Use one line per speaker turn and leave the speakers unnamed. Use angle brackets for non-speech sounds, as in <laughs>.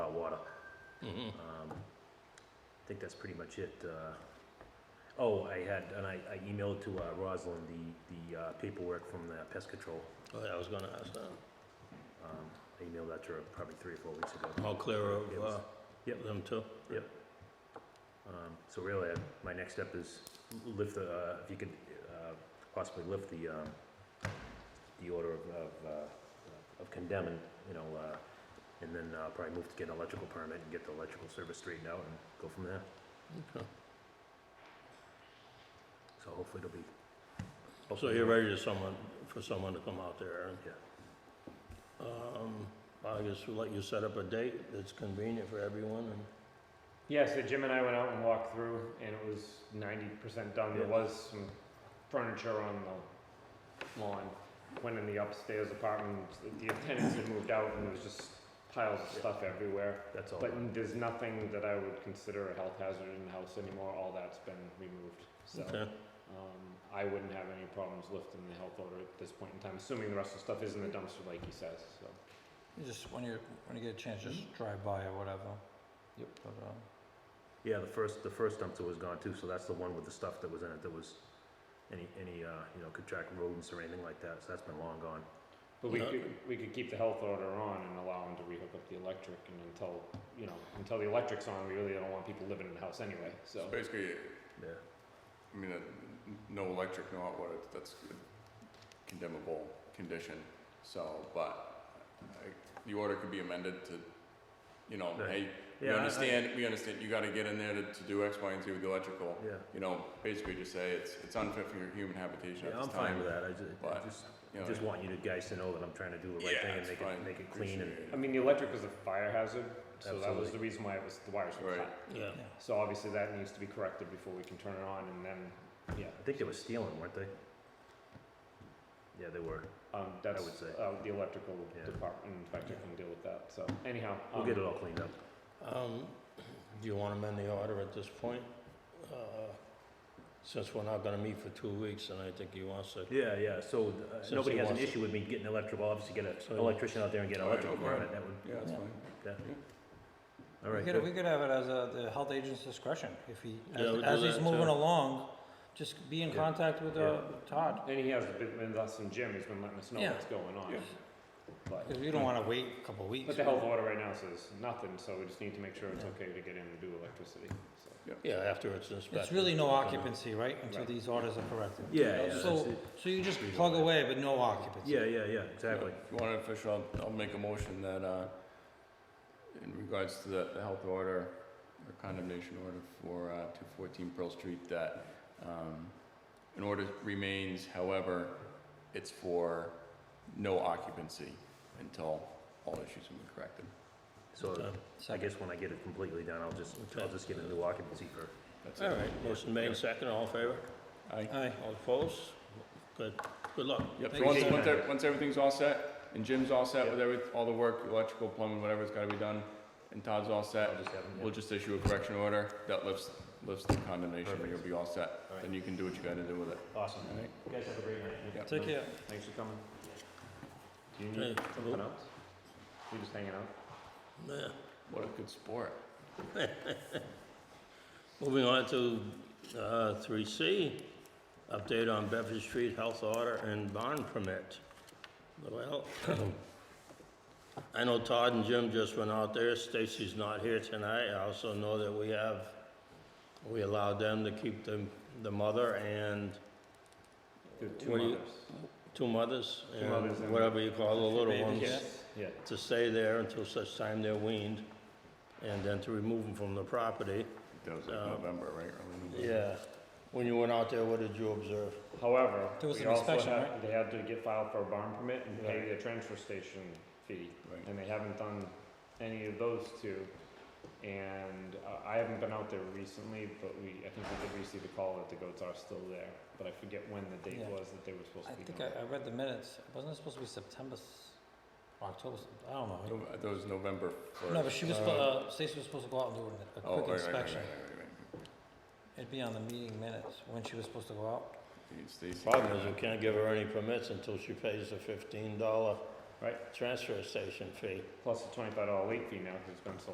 Um, I think that's pretty much it. Uh, Oh, I had, and I I emailed to uh, Rosalind the, the uh, paperwork from the pest control.
Oh, yeah, I was gonna ask that.
Um, I emailed that to her probably three or four weeks ago.
All clear of,
It was-
uh,
Yep.
them too?
Um, So really, uh, my next step is lift the, uh, if you could uh, possibly lift the, um, the order of, of, uh, of condemning, you know, uh, and then uh, probably move to get an electrical permit and get the electrical service straightened out and go from there.
Okay.
So hopefully it'll be.
So
hopefully
you're
it'll-
ready to someone, for someone to come out there, Aaron?
Yeah.
Um, I guess we'll let you set up a date that's convenient for everyone and.
Yeah, so Jim and I went out and walked through, and it was ninety percent done. There
Yeah.
was some furniture on the lawn. Went in the upstairs apartment. The tenants had moved out, and there was just piles of
Yeah.
stuff everywhere.
That's all.
But
done.
there's nothing that I would consider a health hazard in the house anymore. All that's been removed. So
Okay.
um, I wouldn't have any problems lifting the health order at this point in time, assuming the rest of the stuff is in the dumpster, like he says. So
You Just, when you, when you get a chance, just drive by or whatever.
Yep.
But, uh,
Yeah, the first, the first dumpster was gone too, so that's the one with the stuff that was in it that was, any, any, uh, you know, could track rodents or anything like that, so that's been long gone.
But we
Yeah.
could, we could keep the health order on and allow them to rehook up the electric and until, you know, until the electric's on, we really don't want people living in the house anyway, so.
So basically,
Yeah,
I mean, uh, no electric, no hot water, that's a condemnable condition, so, but I- the order could be amended to, you know,
Right.
hey, we
Yeah, I- I-
understand, we understand, you gotta get in there to, to do X, Y, and Z with the electrical.
yeah.
You know, basically just say it's, it's unfit for human habitation at
Yeah,
this
I'm fine
time.
with that, I ju- I
but,
just,
you know,
just want you to guys to know that I'm trying to do the right
Yeah,
thing and
it's
make
fine.
it, make it clean and,
Appreciate it.
I mean, the electric was a fire hazard, so that was
Absolutely.
the reason why it was, the wires were
Right.
cut.
Yeah.
yeah.
So obviously that needs to be corrected before we can turn it on and then, yeah,
I think they were stealing, weren't they? Yeah, they were,
um, that's,
would say.
uh, the electrical
Yeah.
department inspector can deal with that, so anyhow.
we'll
um,
get it all cleaned up.
Um, do you wanna amend the order at this point? Uh, Since we're not gonna meet for two weeks and I think he wants to.
Yeah, yeah, so, uh,
Since
nobody
he
has an
wants it.
issue with me getting electrical, obviously get
So-
an electrician out there and get an
All right,
electrical
no problem.
permit, that would,
Yeah, that's
Yeah.
fine.
all right.
We
good.
could, we could have it as a, the health agent's discretion, if he,
Yeah, we'll
as,
do
as
that,
he's
too.
moving along, just be in
Yeah.
contact with, uh, Todd.
And he has been, with us and Jim, he's been letting us know
Yeah.
what's going on,
Yeah.
but.
Cause you don't wanna wait a couple weeks.
But the health order right now says nothing, so we just need to make sure it's okay to get in and do electricity, so.
Yeah, after it's inspected.
It's really no
Okay.
occupancy, right, until
Right.
these orders are corrected.
Yeah, yeah, that's
So,
it.
so you just plug away, but no occupancy.
Yeah, yeah, yeah, exactly.
If you want it official, I'll, I'll make a motion that, uh, in regards to the, the health order, or condemnation order for, uh, two fourteen Pearl Street, that, um, an order remains, however, it's for no occupancy until all issues have been corrected.
So
Okay.
I
Second.
guess when I get it completely done, I'll just, I'll just get a new occupancy for,
That's it.
All right, motion made, second, all in favor?
Aye.
Aye.
All opposed? Good, good luck.
Yep, so
Thank
once,
you.
once, ev- once everything's all set, and Jim's all set with every, all the work, electrical, plumbing, whatever's gotta be done, and Todd's all
I'll
set,
just have them,
We'll just issue a correction order that lifts, lifts the condemnation, and you'll be all set.
Alright.
Then you can do what you gotta do with it.
yeah. Awesome.
All right.
You guys have a great night.
Yep.
Take care.
Thanks for coming. Do you
Hey,
need something else? You just hanging out?
Yeah.
What a good sport.
<laughs> Moving on to uh, three C, update on Bedford Street Health Order and Bond Permit. Well, <clears throat> I know Todd and Jim just went out there, Stacy's not here tonight, I also know that we have, we allowed them to keep the, the mother and
There are two
What do you-
mothers.
two mothers,
Two mothers
and
and-
whatever you call the little
Babies,
ones,
yeah.
Yeah,
to stay there until such time they're weaned, and then to remove them from the property.
That was like
Oh.
Uh,
November, right? Early November.
Yeah, when you went out there, what did you observe?
however,
There was
we
an
also
inspection,
had,
right?
they had to get filed for a barn permit and pay
Right.
the transfer station fee.
Right.
And they haven't done any of those two. And uh, I haven't been out there recently, but we, I think we did receive a call that the goats are still there. But I forget when the date
Yeah.
was that they were supposed
I
to be
think
gone.
I, I read the minutes, wasn't it supposed to be September, s- or October, s- I don't know.
No, That was November first.
No, but she was,
Uh,
spo- uh, Stacy was supposed to go out and do an- a quick
Oh, right, right, right, right, right,
inspection.
right.
It'd be on the meeting minutes, when she was supposed to go out.
I think it's Stacy.
Problem is, we can't give her any permits until she pays the fifteen dollar
Right.
transfer station fee.
Plus the twenty-five dollar late fee now, because it's been so